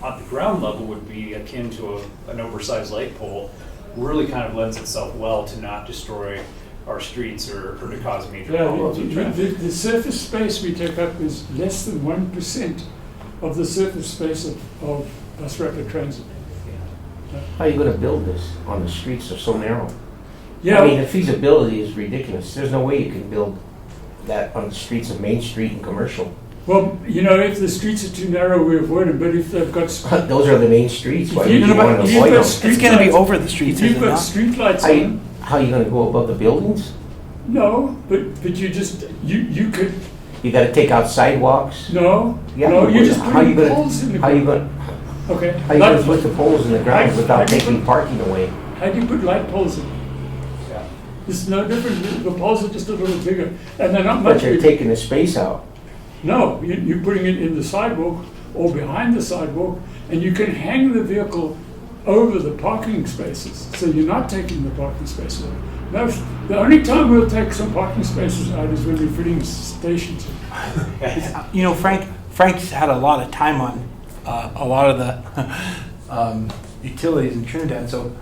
on the ground level would be akin to a, an oversized light pole, really kind of lends itself well to not destroy our streets or, or to cause major Yeah, problems the, with the- the, traffic. the surface space we take up is less than one percent of the surface space of, of bus rapid transit. How are you gonna build this on the streets that are so narrow? I mean, Yeah, the feasibility is ridiculous. There's no way you can build that on the streets of Main Street and Commercial. well, you know, if the streets are too narrow, we avoid them, but if they've got. s- Those are the main streets, why if you- would you wanna if you've avoid got them? street It's gonna be lights- over the streets, If is it you've got not? streetlights How you, on, how you gonna go above the buildings? no, but, but you just, you, you could, You gotta take out sidewalks? no, Yeah, no, you you're would. just How you putting gonna- poles in the. How you gonna, Okay. how you light- gonna put the poles in the ground I- I- without taking parking away? How do you put light poles in? Yeah. It's no different, the- the poles are just a little bigger, and they're not much But you're bigger. taking the space out. No, you- you're putting it in the sidewalk or behind the sidewalk, and you can hang the vehicle over the parking spaces, so you're not taking the parking spaces out. No, the only time we'll take some parking spaces out is when we're fitting stations. You know, Frank, Frank's had a lot of time on uh, a lot of the um, utilities in Trinidad, so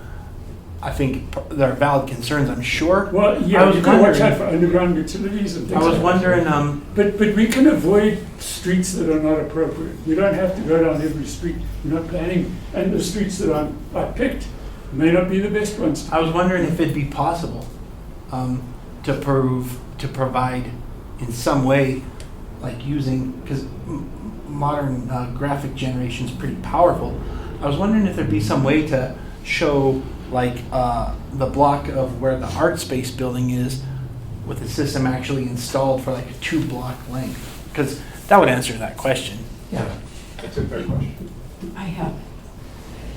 I think p- there are valid concerns, I'm sure. Well, I yeah, was you can watch out wondering, for underground utilities and things I like was that. wondering, um, But, but we can avoid streets that are not appropriate. We don't have to go down every street. We're not planning, and the streets that I'm, I picked may not be the best ones. I was wondering if it'd be possible um, to prove, to provide in some way, like using, because modern uh, graphic generation is pretty powerful. I was wondering if there'd be some way to show like uh, the block of where the art space building is with a system actually installed for like a two block length. Because that would answer that question. Yeah. That's a fair question. I have.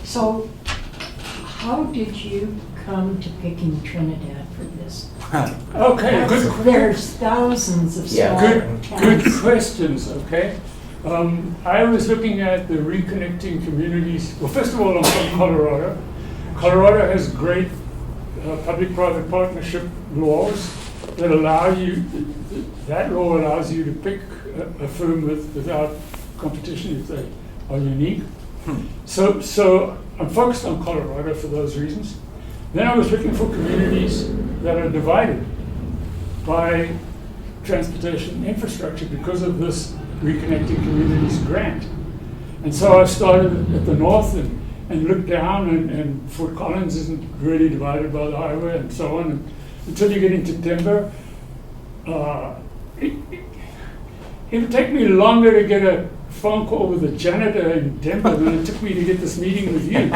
So how did you come to picking Trinidad for this? Okay, good, That's- There's thousands of Yeah. small good, towns. good questions, okay? Um, I was looking at the reconnecting communities. Well, first of all, I'm from Colorado. Colorado has great uh, public-private partnership laws that allow you, that law allows you to pick a, a firm with, without competition if they are unique. Hmm. So, so I'm focused on Colorado for those reasons. Then I was looking for communities that are divided by transportation infrastructure because of this Reconnecting Communities grant. And so I started at the north and, and looked down, and, and Fort Collins isn't really divided by the highway and so on. And until you get into Denver, uh, it, it, it would take me longer to get a phone call with a janitor in Denver than it took me to get this meeting with you.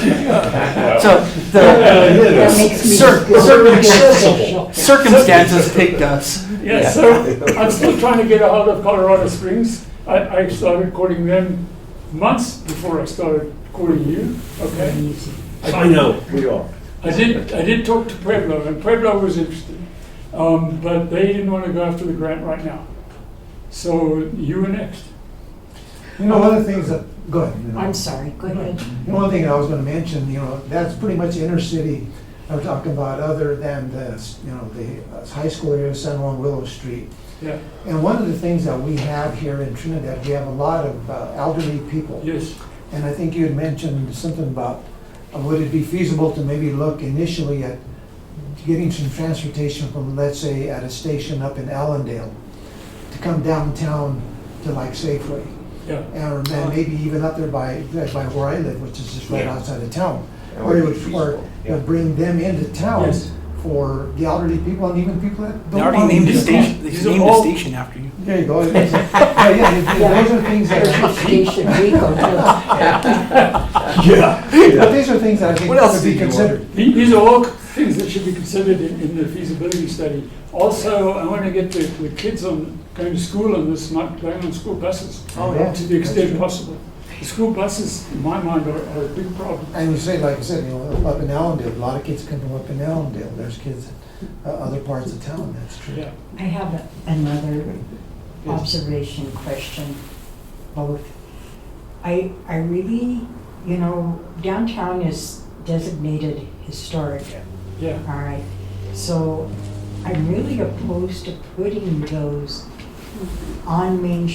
So Yeah, the That makes me Cir- feel cir- really accessible. special. circumstances picked us. Yeah, so I'm still trying to get a hold of Colorado Springs. I, I started calling them months before I started calling you, okay? Easy. I know, we are. I did, I did talk to Pueblo, and Pueblo was interested, um, but they didn't want to go after the grant right now. So you were next. You know, one of the things that, go ahead. you know. I'm sorry, go ahead. You know, One thing I was gonna mention, you know, that's pretty much inner city, I'm talking about other than the, you know, the uh, high school area, San Juan Willow Street. Yeah, And one of the things that we have here in Trinidad, we have a lot of uh, elderly people. yes, And I think you had mentioned something about, uh, would it be feasible to maybe look initially at getting some transportation from, let's say, at a station up in Allendale, to come downtown to like Safeway? yeah. Oh. or then maybe even up there by, by where I live, which is just right Yeah. outside of town. That Or it would be would, or feasible, it yeah. would bring them into town Yes. for the elderly people and even people that They don't. already want to named a use the car. station. They These are named a all- station after you. There you go. It's- Yeah, yeah, it- it- those are things There's a that, station we go to. but these are things that I think What else could be did you want? considered. The- These are all things that should be considered in, in the feasibility study. Also, I want to get the, the kids on, going to school on this, not going on school buses. Oh, yeah. To the extent That's true. possible. The school buses, in my mind, are, are a big problem. And you say, like I said, you know, up in Allendale, a lot of kids come from up in Allendale. There's kids, uh, other parts of town, that's true. Yeah. I have a- another observation question, both. I, I really, you know, downtown is designated historic, Yeah. all right? So I'm really opposed to putting those on Main